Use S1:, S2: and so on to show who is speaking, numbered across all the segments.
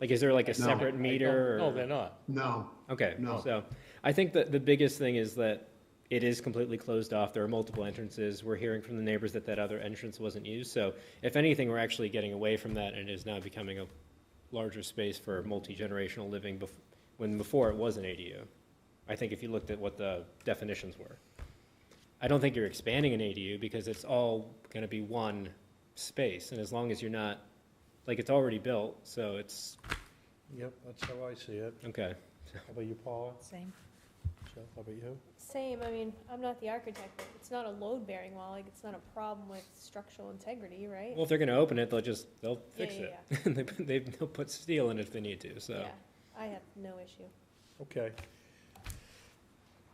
S1: Like, is there like a
S2: No.
S1: separate meter? or-
S3: No, they're not.
S2: No,
S1: Okay,
S2: No.
S1: so I think that the biggest thing is that it is completely closed off. There are multiple entrances. We're hearing from the neighbors that that other entrance wasn't used. So if anything, we're actually getting away from that and it is now becoming a larger space for multi-generational living bef- when before it was an ADU. I think if you looked at what the definitions were. I don't think you're expanding an ADU because it's all going to be one space. And as long as you're not, like, it's already built, so it's,
S3: Yep, that's how I see it.
S1: okay.
S3: How about you, Paula?
S4: Same.
S3: Jeff, how about you?
S5: Same, I mean, I'm not the architect, but it's not a load-bearing wall, like, it's not a problem with structural integrity, right?
S1: Well, if they're gonna open it, they'll just, they'll
S5: Yeah,
S1: fix
S5: yeah,
S1: it. And they, put- they- they'll put steel in it if they need to, so.
S5: Yeah, I have no issue.
S3: Okay.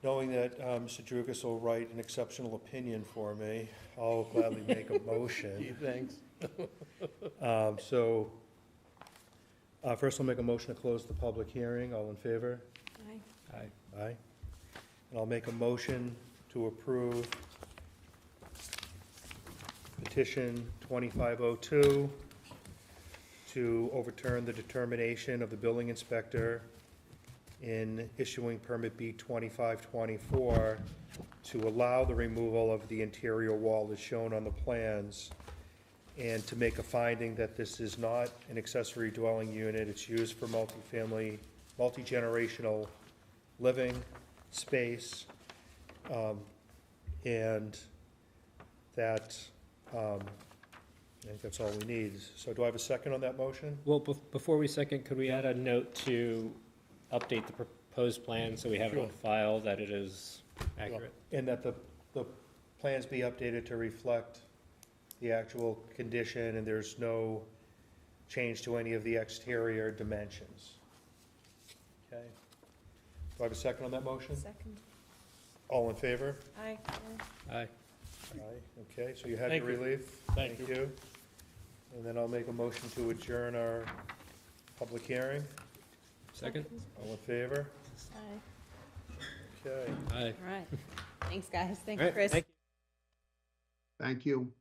S3: Knowing that uh, Mr. Drugas will write an exceptional opinion for me, I'll gladly make a motion.
S1: Thanks.
S3: Um, So, uh, first I'll make a motion to close the public hearing. All in favor?
S5: Aye.
S3: Aye. And I'll make a motion to approve petition 2502 to overturn the determination of the building inspector in issuing permit B 2524 to allow the removal of the interior wall as shown on the plans, and to make a finding that this is not an accessory dwelling unit, it's used for multifamily, multi-generational living space, um, and that, um, I think that's all we need. So do I have a second on that motion?
S1: Well, bef- before we second, could we add a note to update the proposed plan so we have it on
S3: Sure.
S1: file that it is accurate?
S3: And that the, the plans be updated to reflect the actual condition, and there's no change to any of the exterior dimensions. Okay. Do I have a second on that motion?
S5: Second.
S3: All in favor?
S5: Aye.
S1: Aye.
S3: Aye, okay, so you had
S6: Thank
S3: your
S6: you.
S3: relief?
S6: Thank you.
S3: And then I'll make a motion to adjourn our public hearing.
S1: Second?
S3: All in favor?
S5: Aye.
S3: Okay.
S1: Aye.
S4: All right. Thanks, guys.
S1: All
S4: Thanks,
S1: right,
S4: Chris.
S1: thank you.
S2: thank you.